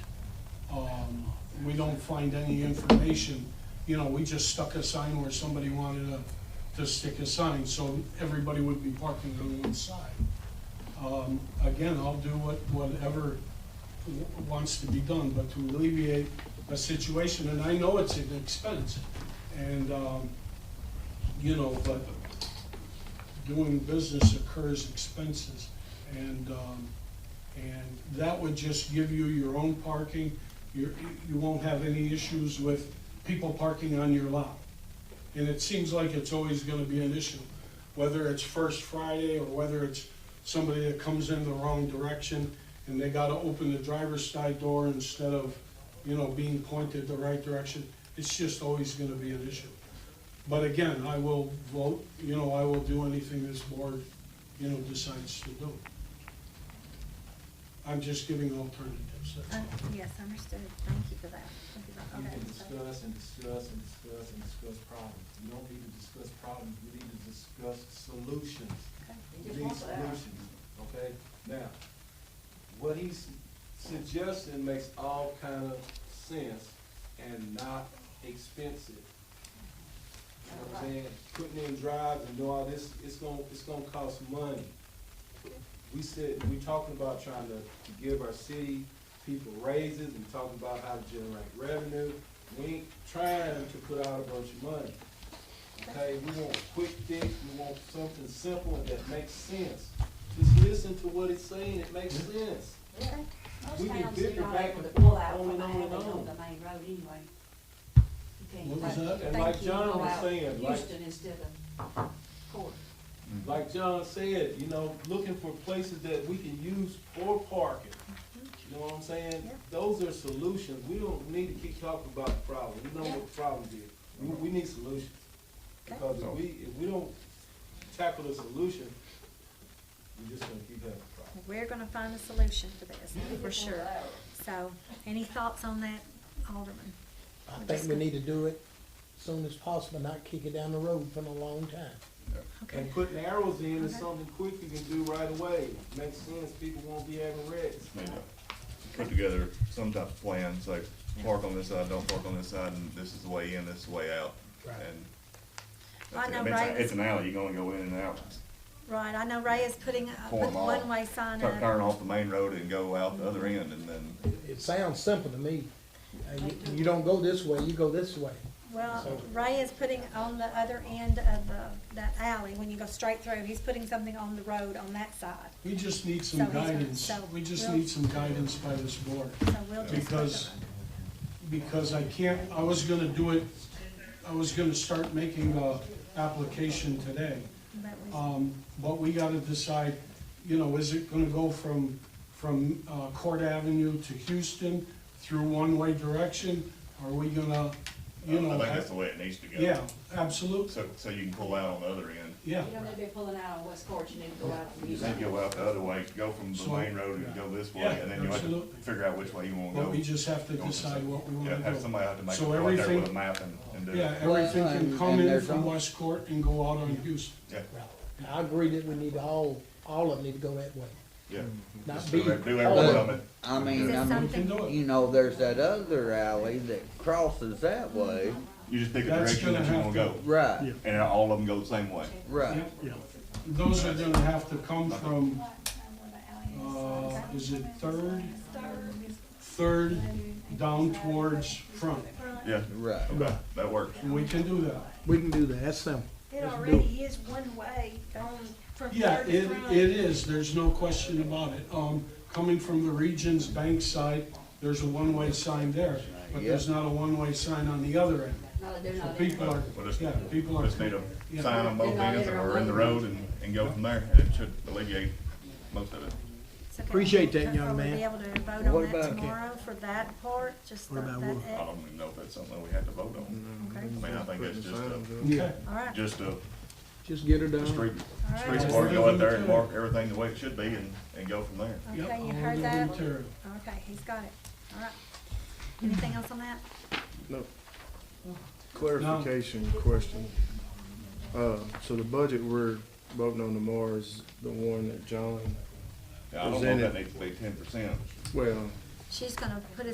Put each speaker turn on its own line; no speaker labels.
Um, we don't find any information, you know, we just stuck a sign where somebody wanted to, to stick a sign, so everybody would be parking on one side. Um, again, I'll do what, whatever w- wants to be done, but to alleviate a situation, and I know it's an expense, and, um, you know, but doing business occurs expenses, and, um, and that would just give you your own parking. You're, you won't have any issues with people parking on your lot. And it seems like it's always gonna be an issue, whether it's First Friday or whether it's somebody that comes in the wrong direction and they gotta open the driver's side door instead of, you know, being pointed the right direction. It's just always gonna be an issue. But again, I will vote, you know, I will do anything this board, you know, decides to do. I'm just giving alternatives, that's all.
Un- Uh, Yes, understood. Thank you for that. Thank you for-
You
okay,
can
so-
discuss and discuss and discuss and discuss problems. You don't need to discuss problems, you need to discuss solutions.
okay.
These solutions, okay? Now, what he's suggesting makes all kind of sense and not expensive. You know what I'm saying? Putting in drives and do all this, it's gonna, it's gonna cost money. We said, we talking about trying to give our city people raises, we talking about how to generate revenue. We ain't trying to put out a bunch of money. Okay, we want quick fix, we want something simple and that makes sense. Just listen to what it's saying, it makes sense.
Okay.
We
Most
can
towns do
bicker
not
back
able to
and
pull
forth, on
out from
and
the
on and
highway
on.
on the main road anyway. You can't
What was
like
that?
And like
Thank you.
John
Go
was
out
saying, like,
Houston instead of Court.
like John said, you know, looking for places that we can use for parking. You know what I'm saying?
Yep.
Those are solutions. We don't need to keep talking about the problem. We know what
Yep.
the problem is. We, we need solutions.
Okay.
Because if we, if we don't tackle the solution, we're just gonna keep having problems.
We're gonna find a solution for this, for sure.
Pull out.
So, any thoughts on that, Alderman?
I think we need to do it soon as possible, not kick it down the road for a long time.
Okay,
And putting arrows in is
Okay.
something quick you can do right away. Makes sense, people won't be having wrecks.
maybe put together some type of plan, say, park on this side, don't park on this side, and this is the way in, this is the way out.
Right.
And
Well, I
that's it.
know
I mean, it's a-
Ray was-
It's an alley, you're gonna go in and out,
right, I know Ray is putting a
Pull 'em all.
one-way sign
Tur-
up.
turn off the main road and go out the other end, and then,
It- It sounds simple to me. Uh, you- You don't go this way, you go this way.
Well,
So-
Ray is putting on the other end of the, that alley, when you go straight through, he's putting something on the road on that side.
We just need
So
some
he's gonna-
guidance,
so
we just
we'll-
need some guidance by this board,
So we'll just. put the-
Because- because I can't, I was gonna do it, I was gonna start making a application today.
but we-
Um, but we gotta decide, you know, is it gonna go from, from, uh, Court Avenue to Houston through one-way direction? Are we gonna,
I
you know,
think that's
have-
the way it needs to go.
yeah, absolutely,
So, so you can pull out on the other end.
yeah.
You don't need to be pulling out on West Court, you need to go out from
You
Houston.
can go out the other way, go from the
So-
main road and go this way,
Yeah,
and then you have to
absolutely.
figure out which way you wanna go.
But we just have to
Go on this
decide
side.
what we
Yeah,
wanna
have
do.
somebody have to make,
So
go out there
everything-
with a map and, and do
Yeah,
it.
everything
Well,
can
and-
come
and
in
there's
from
al-
West Court and go out on Houston.
Yeah,
And I agree that we need to all, all of them need to go that way,
yeah.
not
Just
be.
Do every- do every
all
one
of
of
them.
it.
I
Is
mean,
it
I
We can
something,
do
mean,
it.
you know, there's that other alley that crosses that way.
Mm-hmm.
You just pick a
That's
direction
gonna
that you
have
wanna go,
Right,
and all of them go the same way.
right.
Those are gonna have to come from, uh, is it Third? Third down towards Front.
Yeah,
Right.
okay, that works.
And we can do that.
We can do that, that's simple.
It already is one way going from
Yeah,
there to
it,
front.
it is, there's no question about it. Um, coming from the Regions Bank side, there's a one-way sign there, but there's not a one-way sign on the other end.
No, they're
So
not.
people are,
Well, just,
yeah, people are.
just need
Yeah.
a sign on both
They're not
ends
in our
or in the
way.
road and, and go from there. It should alleviate most of it.
it's okay.
Appreciate that, young
Will we
man.
be able to vote on
What
that
about-
tomorrow for that part, just
What
that,
about
that,
wood?
I
ex-
don't even know if that's something we had to vote on.
okay,
I mean, I think that's just uh, a,
Okay,
all right.
just a,
Just get her
a
done.
street,
All right.
street smart, go out there and mark everything the way it should be and, and go from there.
yep.
Okay, you
all
heard
the
that?
material.
Okay, he's got it, all right. Anything else on that?
Clarification question. Uh, so the budget we're voting on tomorrow is the one that John,
Yeah, I don't know if that needs to be ten percent.
well,
She's gonna put it